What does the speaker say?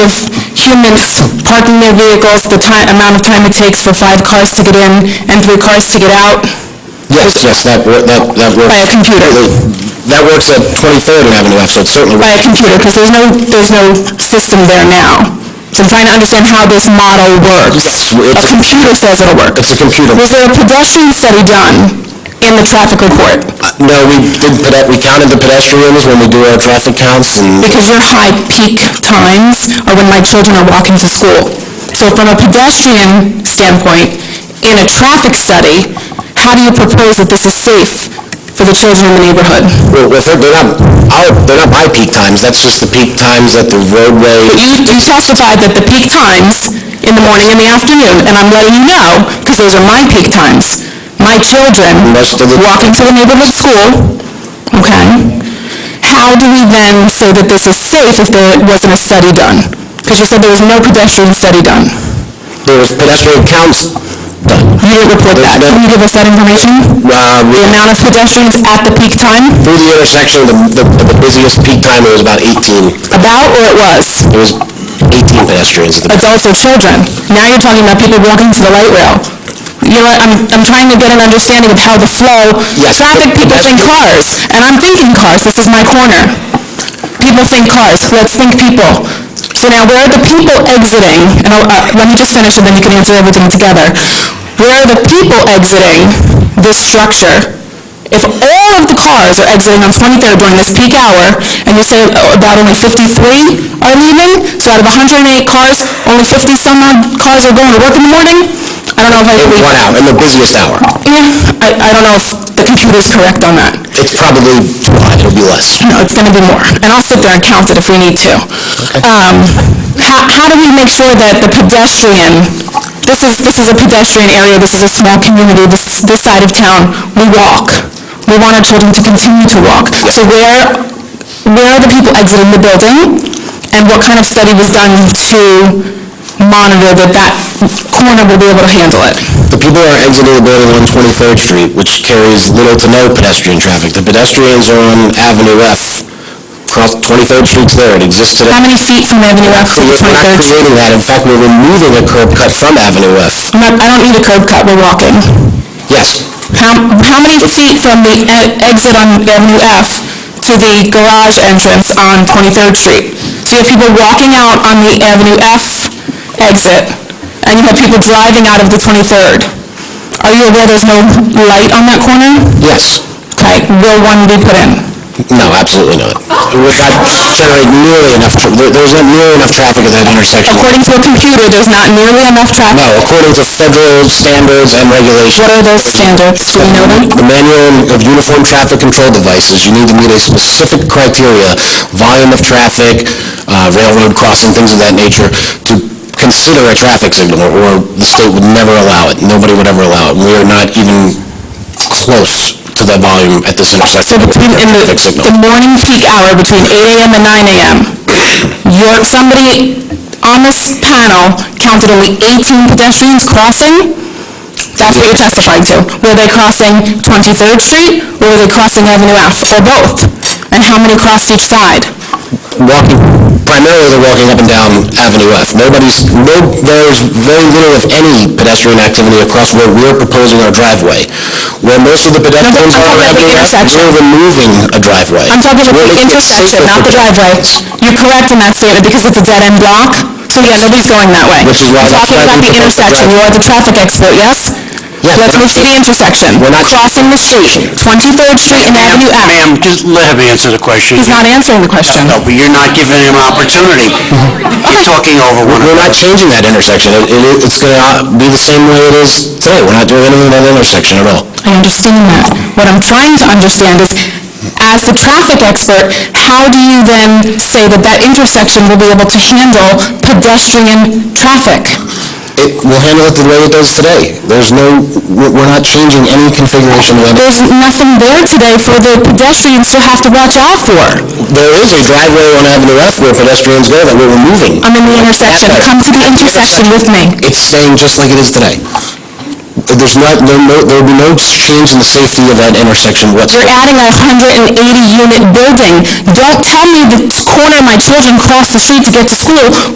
humans parking their vehicles, the time, amount of time it takes for five cars to get in and three cars to get out? Yes, yes, that, wor- that, that works. By a computer. That works at 23rd Avenue, actually, it certainly. By a computer, because there's no, there's no system there now. So I'm trying to understand how this model works. A computer says it'll work. It's a computer. Was there a pedestrian study done in the traffic report? No, we did, pede- we counted the pedestrians when we do our traffic counts, and because your high peak times are when my children are walking to school. So from a pedestrian standpoint, in a traffic study, how do you propose that this is safe for the children in the neighborhood? well, well, they're they're not, our- they're not my peak times, that's just the peak times that the roadway, You you testified that the peak times in the morning and the afternoon, and I'm letting you know, because those are my peak times. My children most of the. walking to the neighborhood school, okay? How do we then say that this is safe if there wasn't a study done? Because you said there was no pedestrian study done. There was pedestrian counts Uh, done. You didn't report that. Can you give us that information? Uh, we- The amount of pedestrians at the peak time? Through the intersection, the, the- the busiest peak time, it was about 18, About or it was? it was 18 pedestrians. at the- Adults or children? Now you're talking about people walking to the light rail. You know, what, I'm, I'm trying to get an understanding of how the flow, Yes, traffic, but- people think cars, and I'm thinking cars, this is my corner. People think cars, let's think people. So now, where are the people exiting, and I'll, uh, let me just finish and then you can answer everything together. Where are the people exiting this structure? If all of the cars are exiting on 23rd during this peak hour, and you say oh, about only 53 are leaving, so out of 108 cars, only 50 some odd cars are going to work in the morning? I don't know if I In believe... one hour, in the busiest hour. Yeah, I, I don't know if the computer's correct on that. It's probably July, it'll be less. No, it's going to be more, and I'll sit there and count it if we need to. Um, How how do we make sure that the pedestrian, this is, this is a pedestrian area, this is a small community, this, this side of town, we walk. We want our children to continue to walk. So where, where are the people exiting the building, and what kind of study was done to monitor that that corner will be able to handle it? The people are exiting the building on 23rd Street, which carries little to no pedestrian traffic. The pedestrians are on Avenue F. Cross- 23rd Street's there, it existed. How many feet from Avenue F to We're 23rd? not creating that, in fact, we're removing a curb cut from Avenue F. I'm not- I don't need a curb cut, we're walking. Yes, How, how many feet from the e- exit on Avenue F to the garage entrance on 23rd Street? So you have people walking out on the Avenue F exit, and you have people driving out of the 23rd. Are you aware there's no light on that corner? yes. Okay, will one be put in? No, absolutely not. It Oh. would not generate nearly enough, tra- there- there's not nearly enough traffic at that intersection. According to a computer, there's not nearly enough No, traffic. according to federal standards and regulations. What are those standards? Do we know them? The Manual of Uniform Traffic Control Devices, you need to meet a specific criteria, volume of traffic, uh, railroad crossing, things of that nature, to consider a traffic signal, or the state would never allow it, nobody would ever allow it. We are not even close to that volume at this So intersection. between, in the, Traffic signal. the morning peak hour, between eight AM and nine AM, your, somebody on this panel counted only eighteen pedestrians crossing? That's what you're testifying to. Were they crossing Twenty-third Street, or were they crossing Avenue F, or both? And how many crossed each side? walking, primarily they're walking up and down Avenue F. Nobody's, no, there's very little of any pedestrian activity across where we're proposing our driveway. Where most of the pedestrians I'm are on talking about the Avenue F, intersection. we're removing a driveway. I'm talking about the We're making it intersection, safer not for the driveway. You're correct in that statement, because it's a dead-end block, so yeah, nobody's going that way. Which is why We're that's talking why about we the propose the intersection, you are the traffic expert, yes? Yeah, Let's but- move to the intersection. We're not- Crossing the street, 23rd Street and Ma'am, Avenue F. Ma'am, just let him answer the question. He's not answering the question. No, but you're not giving him an opportunity. You're talking over one We're not another. changing that intersection. It, it- it's gonna be the same way it is today. We're not doing anything at that intersection at all. I understand that. What I'm trying to understand is, as the traffic expert, how do you then say that that intersection will be able to handle pedestrian traffic? It, we'll handle it the way it does today. There's no, we're we're not changing any configuration of that There's nothing there today for the pedestrians to have to watch out for. There is a driveway on Avenue F where pedestrians go that we're removing. I'm in the intersection. Come to the intersection with me. It's staying just like it is today. There's not, there no- there will be no change in the safety of that intersection You're whatsoever. adding a 180-unit building. Don't tell me the corner my children cross the street to get to school